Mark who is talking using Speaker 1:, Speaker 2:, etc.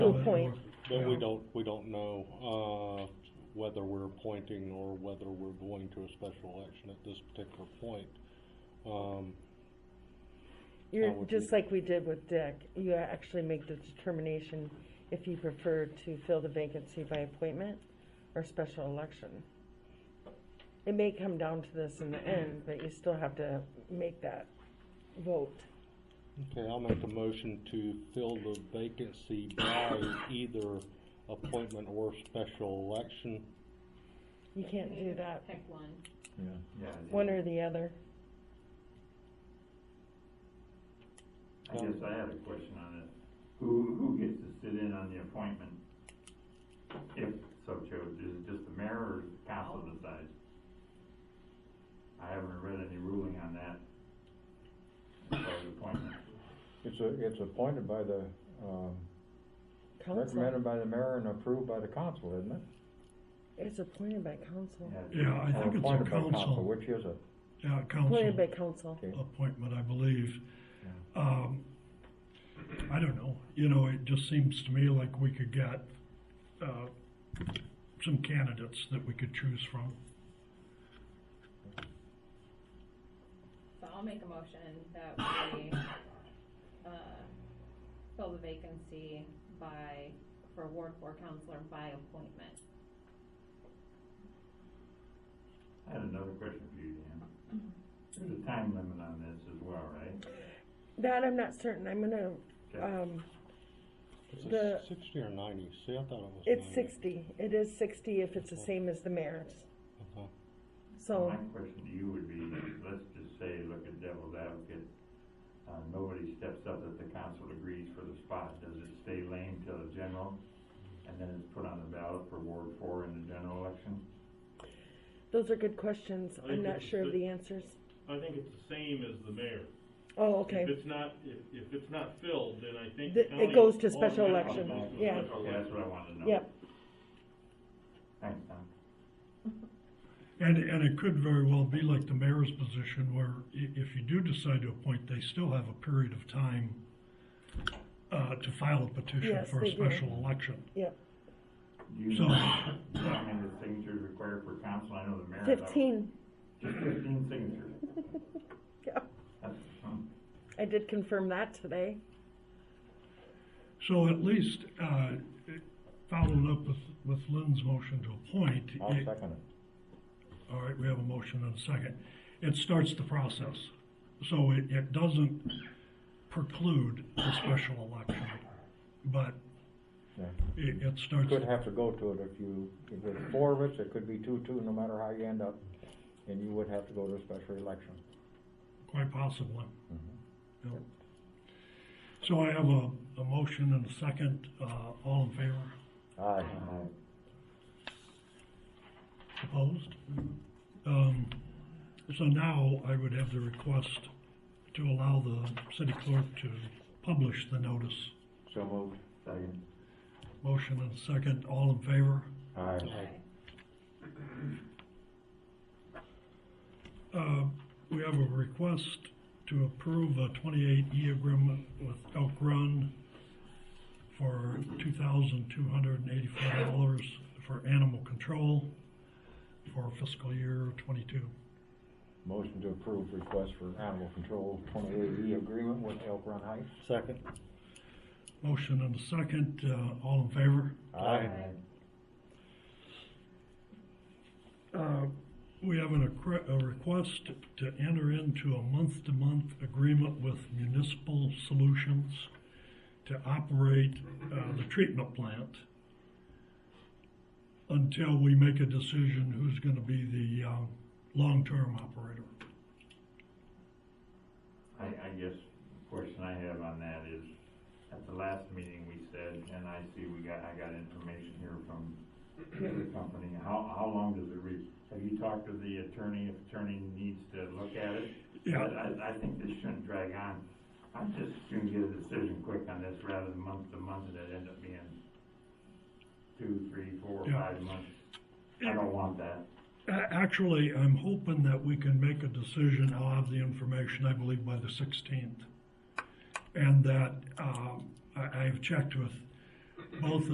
Speaker 1: good point.
Speaker 2: But we don't, we don't know, uh, whether we're appointing or whether we're going to a special election at this particular point. Um,
Speaker 1: You're,
Speaker 2: That would
Speaker 1: just
Speaker 2: be-
Speaker 1: like we did with Dick, you actually make the determination if you prefer to fill the vacancy by appointment or special election. It may come down to this in the end, but you still have to make that vote.
Speaker 2: okay, I'll make a motion to fill the vacancy by either appointment or special election.
Speaker 1: You can't do that,
Speaker 3: Pick one.
Speaker 4: Yeah.
Speaker 1: one or the other.
Speaker 4: I guess I had a question on this. Who, who gets to sit in on the appointment? If so chose, is it just the mayor or does council decides? I haven't read any ruling on that. As far as appointment.
Speaker 5: It's a, it's appointed by the, um,
Speaker 1: Council,
Speaker 5: recommended by the mayor and approved by the council, isn't it?
Speaker 1: it's appointed by council,
Speaker 4: it's-
Speaker 6: Yeah, I
Speaker 5: Or
Speaker 6: think it's
Speaker 5: appointed
Speaker 6: a
Speaker 5: by
Speaker 6: council,
Speaker 5: Which is it?
Speaker 6: yeah, a
Speaker 1: appointed by
Speaker 6: council
Speaker 1: council.
Speaker 5: Okay.
Speaker 6: appointment, I believe. Um, I don't know, you know, it just seems to me like we could get, uh, some candidates that we could choose from.
Speaker 3: So I'll make a motion that we, uh, fill the vacancy by, for Ward Four Counselor by appointment.
Speaker 4: I had another question for you, Dan. There's a time limit on this as well, right?
Speaker 1: That I'm not certain, I'm gonna,
Speaker 4: Okay.
Speaker 1: um,
Speaker 2: Is it
Speaker 1: The-
Speaker 2: sixty or ninety? See, I thought it was ninety.
Speaker 1: it's sixty, it is sixty if it's the same as the mayor's,
Speaker 2: Okay.
Speaker 1: so.
Speaker 4: My question to you would be, let's just say, look at devil's advocate, uh, nobody steps up that the council agrees for the spot, does it stay lame till the general? And then it's put on the ballot for Ward four in the general election?
Speaker 1: Those are good questions.
Speaker 7: I
Speaker 1: I'm
Speaker 7: think
Speaker 1: not
Speaker 7: it's
Speaker 1: sure of
Speaker 7: the-
Speaker 1: the answers.
Speaker 7: I think it's the same as the mayor.
Speaker 1: Oh, okay.
Speaker 7: If it's not, if, if it's not filled, then I
Speaker 1: Th-
Speaker 7: think. the
Speaker 1: it
Speaker 7: county
Speaker 1: goes to special
Speaker 7: automatically
Speaker 1: election,
Speaker 7: goes to
Speaker 1: yeah.
Speaker 7: special
Speaker 4: Okay, that's
Speaker 7: election.
Speaker 4: what I wanted to know.
Speaker 1: Yep.
Speaker 4: Thanks, Tom.
Speaker 6: And, and it could very well be like the mayor's position where i- if you do decide to appoint, they still have a period of time uh, to file a petition
Speaker 1: Yes,
Speaker 6: for
Speaker 1: they
Speaker 6: a
Speaker 1: do.
Speaker 6: special election.
Speaker 1: Yep.
Speaker 4: Do you
Speaker 6: So-
Speaker 4: know how many signatures required for council, I know the mayor.
Speaker 1: Fifteen.
Speaker 4: Just fifteen signatures.
Speaker 1: Yeah.
Speaker 4: That's, hmm.
Speaker 1: I did confirm that today.
Speaker 6: So at least, uh, it- following up with, with Lynn's motion to appoint.
Speaker 5: I'll
Speaker 6: it-
Speaker 5: second it.
Speaker 6: All right, we have a motion and a second. It starts the process. So it, it doesn't preclude the special election, but
Speaker 5: Yeah.
Speaker 6: it, it starts.
Speaker 5: Could have to go to it if you, if it's four of us, it could be two, two, no matter how you end up, and you would have to go to a special election.
Speaker 6: Quite possibly.
Speaker 5: Mm-hmm.
Speaker 6: Yep. So I have a, a motion and a second, uh, all in favor,
Speaker 5: Aye.
Speaker 6: opposed?
Speaker 5: Mm-hmm.
Speaker 6: Um, so now I would have the request to allow the city clerk to publish the notice.
Speaker 5: So moved.
Speaker 4: Second.
Speaker 6: Motion and a second, all in favor?
Speaker 5: Aye.
Speaker 6: Uh, we have a request to approve a twenty-eight E agreement with Elk Run for two thousand two hundred and eighty-four dollars for animal control for fiscal year twenty-two.
Speaker 5: Motion to approve request for animal control twenty-eight E agreement with Elk Run Heights.
Speaker 2: Second?
Speaker 6: Motion and a second, uh, all in favor?
Speaker 5: Aye.
Speaker 6: Uh, we have an, accre- a request to enter into a month-to-month agreement with Municipal Solutions to operate, uh, the treatment plant until we make a decision who's gonna be the, um, long-term operator.
Speaker 4: I, I guess the question I have on that is, at the last meeting, we said, and I see we got, I got information here from the company, how, how long does it reach? Have you talked to the attorney, if attorney needs to look at it?
Speaker 6: Yeah.
Speaker 4: I, I think this shouldn't drag on. I'm just gonna get a decision quick on this rather than month to month, and it end up being two, three, four,
Speaker 6: Yeah.
Speaker 4: five months. I don't want that.
Speaker 6: A- actually, I'm hoping that we can make a decision, I'll have the information, uh, I believe, by the sixteenth. And that, um, I, I've checked with